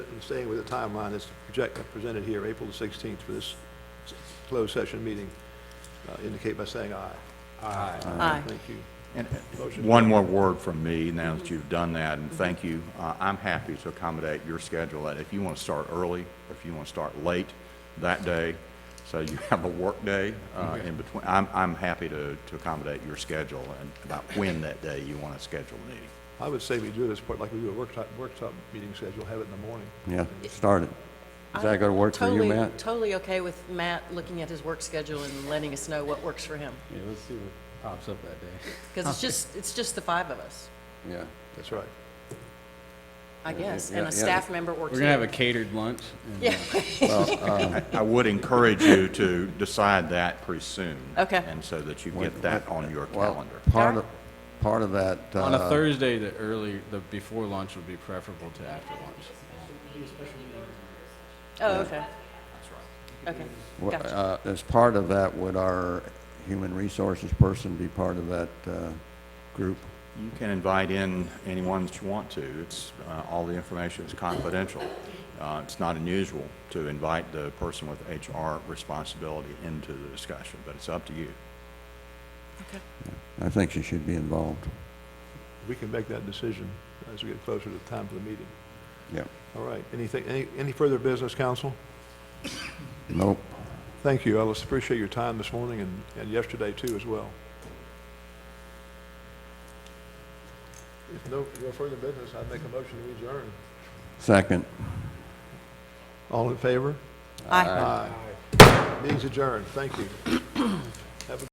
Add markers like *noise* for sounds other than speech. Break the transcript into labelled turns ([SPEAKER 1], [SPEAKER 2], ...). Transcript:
[SPEAKER 1] And staying with the timeline that's project- presented here, April the 16th for this s- closed session meeting, uh, indicate by saying aye.
[SPEAKER 2] Aye.
[SPEAKER 1] Thank you.
[SPEAKER 3] And uh,
[SPEAKER 1] Motion
[SPEAKER 3] one more word from me, now that you've done that, and thank you. Uh, I'm happy to accommodate your schedule, and if you want to start early, or if you want to start late that day, so you *laughs* have a work day uh, in between, I'm, I'm happy to, to accommodate your schedule and about when that day you want to schedule a meeting.
[SPEAKER 1] I would say we do this part like we do a workshop, workshop meeting schedule, have it in the morning.
[SPEAKER 4] Yeah, start it. Is that gonna work for you,
[SPEAKER 2] Totally-
[SPEAKER 4] Matt?
[SPEAKER 2] Totally okay with Matt looking at his work schedule and letting us know what works for him.
[SPEAKER 5] Yeah, let's see what pops up that day.
[SPEAKER 2] Because it's just, it's just the five of us,
[SPEAKER 4] Yeah.
[SPEAKER 1] That's right.
[SPEAKER 2] I
[SPEAKER 4] Yeah,
[SPEAKER 2] guess,
[SPEAKER 4] yeah,
[SPEAKER 2] and a
[SPEAKER 4] yeah.
[SPEAKER 2] staff member works.
[SPEAKER 5] We're gonna have a catered lunch.
[SPEAKER 2] *laughs*
[SPEAKER 5] and,
[SPEAKER 2] Yeah,
[SPEAKER 3] I- I would encourage you to decide that pretty soon.
[SPEAKER 2] Okay.
[SPEAKER 3] And so that you get that on your
[SPEAKER 4] Well,
[SPEAKER 3] calendar.
[SPEAKER 4] part of, part of that,
[SPEAKER 5] uh, On a
[SPEAKER 4] uh,
[SPEAKER 5] Thursday, the early, the before lunch would be preferable to after lunch.
[SPEAKER 2] oh, okay. Okay,
[SPEAKER 4] w-
[SPEAKER 2] gotcha.
[SPEAKER 4] uh, as part of that, would our human resources person be part of that, uh, group?
[SPEAKER 3] You can invite in anyone that you want to. It's, uh, all the information is confidential. Uh, It's not unusual to invite the person with HR responsibility into the discussion, but it's up to you.
[SPEAKER 4] I think she should be involved.
[SPEAKER 1] We can make that decision as we get closer to the time for the meeting.
[SPEAKER 4] Yep.
[SPEAKER 1] All right, anything, any, any further business, council?
[SPEAKER 4] Nope.
[SPEAKER 1] Thank you, Ellis, appreciate your time this morning and, and yesterday too as well. If no, no further business, I'd make a motion to adjourn.
[SPEAKER 4] Second.
[SPEAKER 1] All in favor?
[SPEAKER 2] Aye.
[SPEAKER 1] Aye. Meeting's adjourned, thank you.